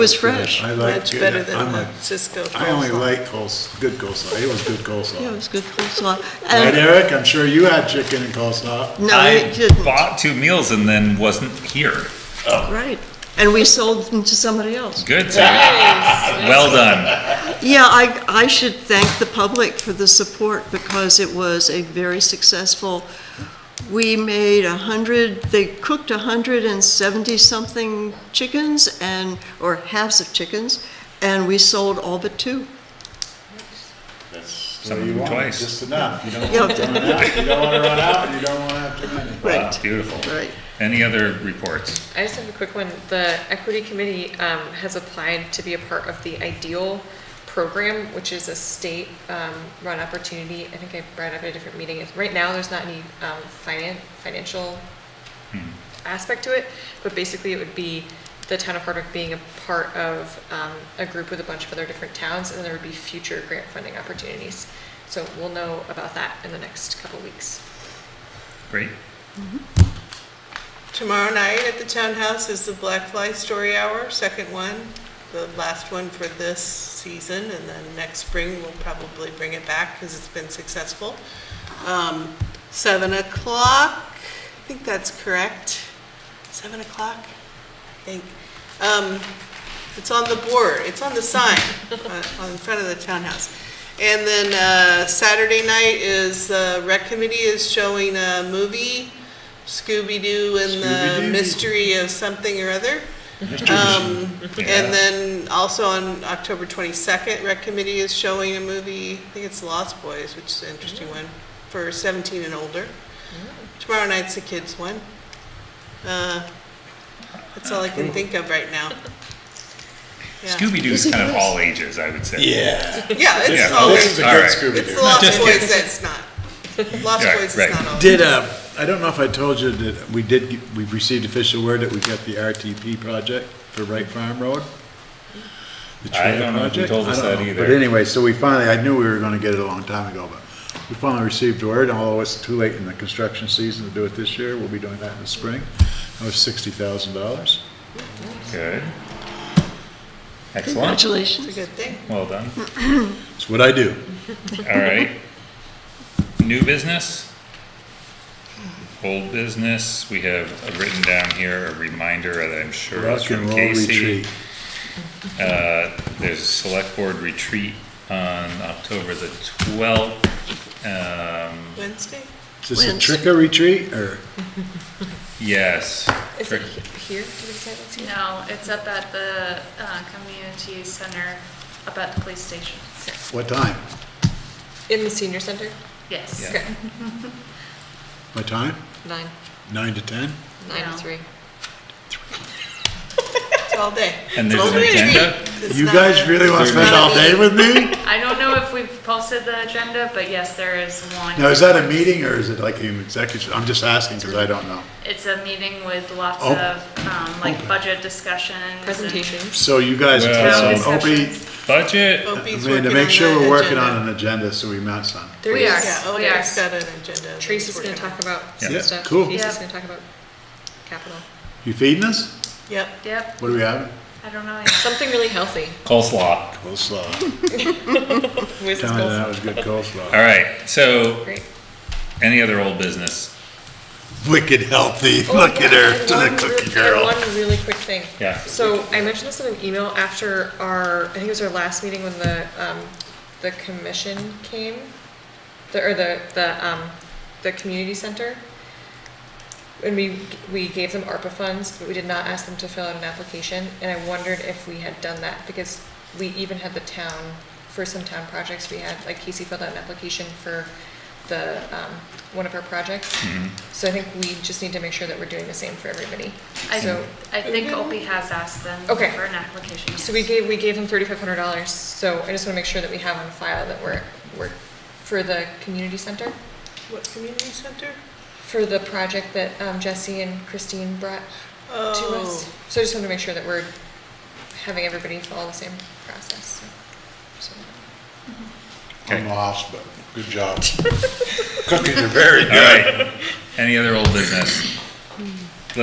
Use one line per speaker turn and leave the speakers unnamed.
was fresh,
I like
much
good-
better than
I'm
the
a-
Cisco
I only
coleslaw.
like coles, good coleslaw, it was good
Yeah, Um, it
coleslaw.
was good coleslaw.
Right,
And,
Eric, I'm sure you had chicken and coleslaw.
no,
I
it didn't,
bought two meals and then wasn't here.
right. And we sold them to somebody else.
Good, Terry. Well done.
Yeah, I, I should thank the public for the support because it was a very successful, we made a hundred, they cooked a hundred and seventy-something chickens and, or halves of chickens, and we sold all but two.
So you
them
want
twice.
Just enough, you don't
Yeah.
want to run out, you don't want to run out, and you don't want to have too many.
Wow,
Right,
Beautiful.
right.
Any other reports?
I just have a quick one. The Equity Committee um, has applied to be a part of the IDEAL program, which is a state-run opportunity. I think I brought it up at a different meeting. It's- Right now, there's not any um, finan- financial aspect to it, but basically it would be the town of Hardwick being a part of um, a group with a bunch of other different towns, and then there would be future grant funding opportunities. So we'll know about that in the next couple weeks.
Great.
Tomorrow night at the townhouse is the Black Fly Story Hour, second one, the last one for this season, and then next spring we'll probably bring it back because it's been successful. Um, Seven o'clock, I think that's correct, seven o'clock, I think. Um, It's on the board, it's on the sign, uh, on in front of the townhouse. And then uh, Saturday night is, uh, Rec Committee is showing a movie, Scooby-Doo and the
Scooby-Doo.
Mystery of Something or Other. Um,
Yeah.
And then also on October 22nd, Rec Committee is showing a movie, I think it's Lost Boys, which is an interesting one, for 17 and older. Tomorrow night's the kids' one. Uh, That's all I can think of right now. Yeah.
Scooby-Doo's
Is it
kind of
yours?
all ages, I would say.
Yeah.
Yeah, it's
Yeah,
Oh,
all,
This is a
it's
All
good
right.
Scooby-Doo.
the Lost Boys that's not. Lost
Yeah,
Boys is
right.
not all.
Did, uh, I don't know if I told you that we did, get- we received official word that we got the RTP project for Wright Farm Road. The
I
trail
don't know if you
project.
told
I
us
don't
that
know.
either.
But anyway, so we finally, I knew we were gonna get it a long time ago, but we finally received word, although it's too late in the construction season to do it this year, we'll be doing that in the spring. That was sixty thousand dollars.
Good. Excellent.
Congratulations.
It's a good thing.
Well done.
It's what I do.
All right. New business? Old business? We have written down here a reminder that I'm sure is
Rock and
from
roll
Casey.
retreat.
Uh, There's a select board retreat on October the 12th. Um,
Wednesday?
Is this a
Wins.
trick or retreat, or?
Yes.
Is it
Trick-
he- here? Do we decide that's here?
No, it's up at the uh, community center, up at the police station.
What time?
In the senior center?
Yes.
Yeah.
Okay,
My time?
nine,
Nine to 10?
nine
No.
to three.
It's all day.
And there's an
It's all day.
agenda?
It's
You
not
guys
a-
really want to
Is
spend
there-
all day with me?
I don't know if we've posted the agenda, but yes, there is one.
Now, is that a meeting, or is it like an executive? I'm just asking, because I don't know.
It's a meeting with lots
Oh.
of, um, like budget discussions. and
Presentations.
So you guys,
Well-
Uh, so Opie,
Discussions.
Budget,
Oh.
Opie's
Amanda,
working
make
on
sure
the
we're working
agenda.
on an agenda, so we met some.
There
We
is-
are.
Yeah,
We are.
Oda's got an agenda.
Tracy's gonna talk about some
Yeah,
stuff.
cool.
Tracy's
Yeah.
gonna talk about capital.
You feeding us?
Yep.
Yep,
What do we have?
I don't know yet.
Something really healthy.
coleslaw.
Coleslaw.
Wizards
Tell me
Girls.
that was good
All
coleslaw.
right, so
Great.
any other old business?
Wicked healthy,
Oh,
look at her, to the
One
cookie
real- and
girl.
One really quick thing.
Yeah.
So I mentioned this in an email after our, I think it was our last meeting when the, um, the commission came, the, or the, the, um, the community center. And we, we gave them ARPA funds, but we did not ask them to fill out an application, and I wondered if we had done that, because we even had the town, for some town projects, we had, like Casey filled out an application for the, um, one of our projects. So I think we just need to make sure that we're doing the same for everybody.
I,
So,
I think Opie has asked them for
Okay.
an application.
so we
yes.
gave, we gave them thirty-five hundred dollars, so I just wanna make sure that we have on file that we're, we're, for the community center,
What community center?
for the project that, um, Jesse and Christine brought to
Oh,
us. So I just want to make sure that we're having everybody follow the same process. so-
I'm lost, but good job. Cookies are very
All right, any other old business?